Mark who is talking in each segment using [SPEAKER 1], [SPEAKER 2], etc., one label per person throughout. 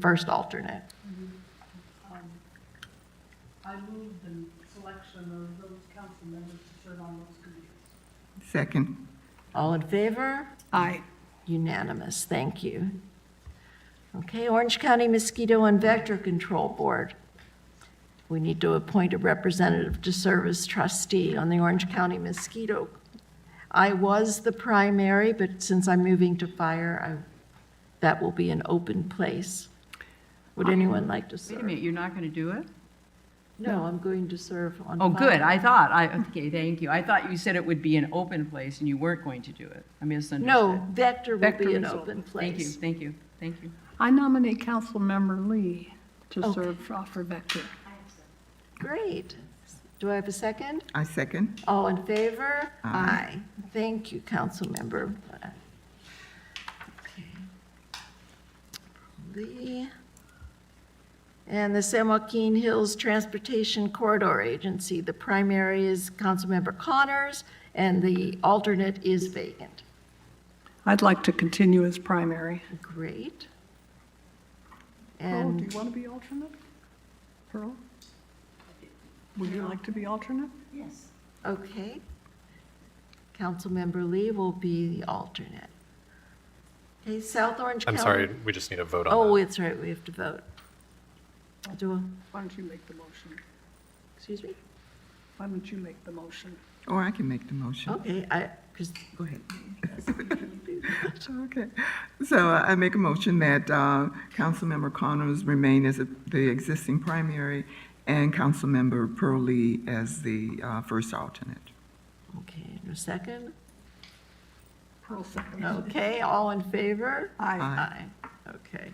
[SPEAKER 1] first alternate.
[SPEAKER 2] I move the selection of those council members to serve on those committees.
[SPEAKER 3] Second.
[SPEAKER 1] All in favor?
[SPEAKER 3] Aye.
[SPEAKER 1] Unanimous, thank you. Okay, Orange County Mosquito and Vector Control Board. We need to appoint a representative to serve as trustee on the Orange County Mosquito. I was the primary, but since I'm moving to fire, I, that will be an open place. Would anyone like to
[SPEAKER 4] Ah. Wait a
[SPEAKER 1] serve?
[SPEAKER 4] minute, you're not going to do it?
[SPEAKER 1] No, I'm going to serve on.
[SPEAKER 4] Oh,
[SPEAKER 1] fire.
[SPEAKER 4] good, I thought, I, okay, thank you. I thought you said it would be an open place and you weren't going to do it. I misunderstood.
[SPEAKER 1] No, Vector will
[SPEAKER 4] Vector
[SPEAKER 1] be an
[SPEAKER 4] Control.
[SPEAKER 1] open
[SPEAKER 4] Thank you,
[SPEAKER 1] place.
[SPEAKER 4] thank you, thank you.
[SPEAKER 3] I nominate Councilmember Lee to
[SPEAKER 1] Okay.
[SPEAKER 3] serve for- for Vector.
[SPEAKER 1] Great. Do I have a second?
[SPEAKER 5] I second.
[SPEAKER 1] All in favor? Aye. Thank you, Councilmember. Lee. And the San Joaquin Hills Transportation Corridor Agency, the primary is Councilmember Connors, and the alternate is vacant.
[SPEAKER 3] I'd like to continue as primary.
[SPEAKER 1] Great.
[SPEAKER 3] Pearl, do
[SPEAKER 1] And
[SPEAKER 3] you want to be alternate? Pearl? Would you like to be alternate?
[SPEAKER 2] Yes.
[SPEAKER 1] Okay. Councilmember Lee will be the alternate. Okay, South Orange
[SPEAKER 6] I'm
[SPEAKER 1] County.
[SPEAKER 6] sorry, we just need a vote
[SPEAKER 1] Oh,
[SPEAKER 6] on that.
[SPEAKER 1] it's right, we have to vote. Do, a-
[SPEAKER 3] Why don't you make the motion?
[SPEAKER 1] excuse me?
[SPEAKER 3] Why don't you make the motion?
[SPEAKER 5] Or Oh, I can make the motion.
[SPEAKER 1] Okay, I, because,
[SPEAKER 5] Go ahead. Okay. So uh, I make a motion that uh, Councilmember Connors remain as a- the existing primary and Councilmember Pearl Lee as the uh, first alternate.
[SPEAKER 1] okay, no second?
[SPEAKER 3] Pearl second.
[SPEAKER 1] Okay, all in favor?
[SPEAKER 3] Aye.
[SPEAKER 1] Aye, okay.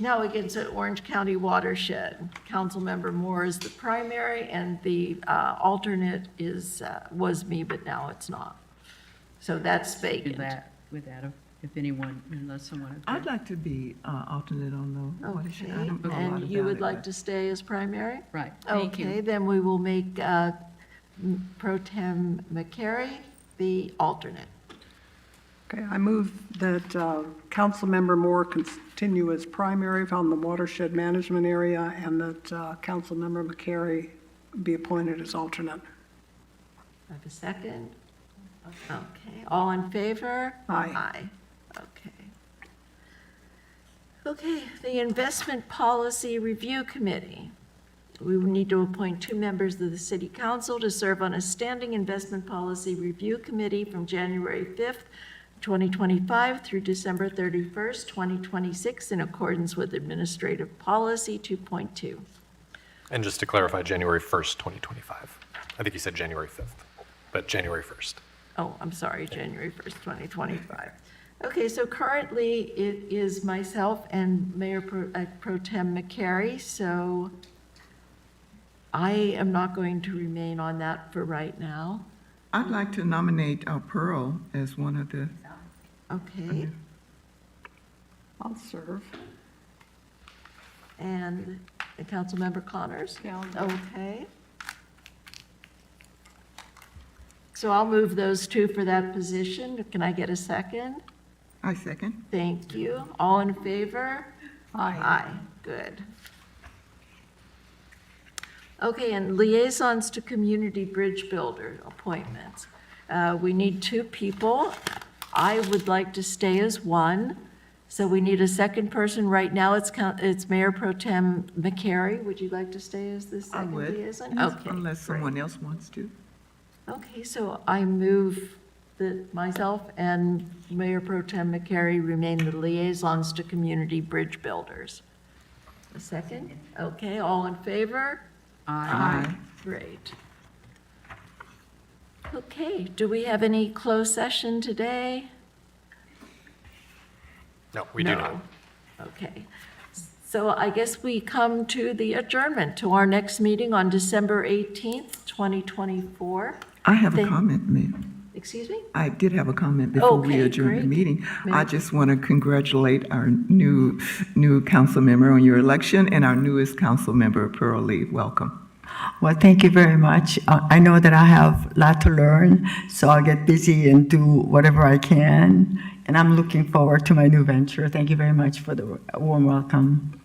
[SPEAKER 1] Now we get to Orange County Watershed. Councilmember Moore is the primary, and the uh, alternate is, uh, was me, but now it's not. So that's
[SPEAKER 4] Do
[SPEAKER 1] vacant.
[SPEAKER 4] that with that, if anyone, unless someone.
[SPEAKER 5] I'd like to be uh, alternate on the
[SPEAKER 1] Okay,
[SPEAKER 5] watershed. I don't know a lot
[SPEAKER 1] and you
[SPEAKER 5] about
[SPEAKER 1] would
[SPEAKER 5] it,
[SPEAKER 1] like
[SPEAKER 5] but-
[SPEAKER 1] to stay as primary?
[SPEAKER 4] Right, thank
[SPEAKER 1] Okay,
[SPEAKER 4] you.
[SPEAKER 1] then we will make uh, m- Pro Tem McCary the alternate.
[SPEAKER 3] Okay, I move that uh, Councilmember Moore continue as primary on the watershed management area and that uh, Councilmember McCary be appointed as alternate.
[SPEAKER 1] I have a second? Okay, all in favor?
[SPEAKER 3] Aye.
[SPEAKER 1] Aye, okay. Okay, the Investment Policy Review Committee. We will need to appoint two members of the City Council to serve on a standing Investment Policy Review Committee from January 5th, 2025 through December 31st, 2026, in accordance with Administrative Policy 2.2.
[SPEAKER 6] And just to clarify, January 1st, 2025. I think you said January 5th, but January 1st.
[SPEAKER 1] Oh, I'm sorry, January 1st, 2025. Okay, so currently it is myself and Mayor Pro uh, Pro Tem McCary, so I am not going to remain on that for right now.
[SPEAKER 5] I'd like to nominate uh, Pearl as one of the,
[SPEAKER 1] Okay,
[SPEAKER 3] I'll serve.
[SPEAKER 1] and the Councilmember Connors?
[SPEAKER 3] Yeah, I'll-
[SPEAKER 1] Okay. So I'll move those two for that position. Can I get a second?
[SPEAKER 5] I second.
[SPEAKER 1] Thank you. All in favor?
[SPEAKER 3] Aye.
[SPEAKER 1] Aye, good. Okay, and liaisons to community bridge builder appointments. Uh, We need two people. I would like to stay as one, so we need a second person. Right now, it's, coun- it's Mayor Pro Tem McCary. Would you like to stay as the
[SPEAKER 5] I
[SPEAKER 1] second
[SPEAKER 5] would,
[SPEAKER 1] liaison? Okay,
[SPEAKER 5] unless
[SPEAKER 1] great.
[SPEAKER 5] someone else wants to.
[SPEAKER 1] Okay, so I move that myself and Mayor Pro Tem McCary remain the liaisons to community bridge builders. A second? Okay, all in favor?
[SPEAKER 4] Aye.
[SPEAKER 1] Great. Okay, do we have any closed session today?
[SPEAKER 6] No, we do
[SPEAKER 1] No.
[SPEAKER 6] not.
[SPEAKER 1] Okay. So I guess we come to the adjournment to our next meeting on December 18th, 2024.
[SPEAKER 5] I have a
[SPEAKER 1] Thank-
[SPEAKER 5] comment, Mayor.
[SPEAKER 1] Excuse me?
[SPEAKER 5] I did have a comment before we
[SPEAKER 1] Okay,
[SPEAKER 5] adjourn the
[SPEAKER 1] great.
[SPEAKER 5] meeting. I
[SPEAKER 1] Ma'am.
[SPEAKER 5] just want to congratulate our new, new council member on your election and our newest council member, Pearl Lee. Welcome.
[SPEAKER 7] Well, thank you very much. Uh, I know that I have a lot to learn, so I'll get busy and do whatever I can and I'm looking forward to my new venture. Thank you very much for the warm welcome.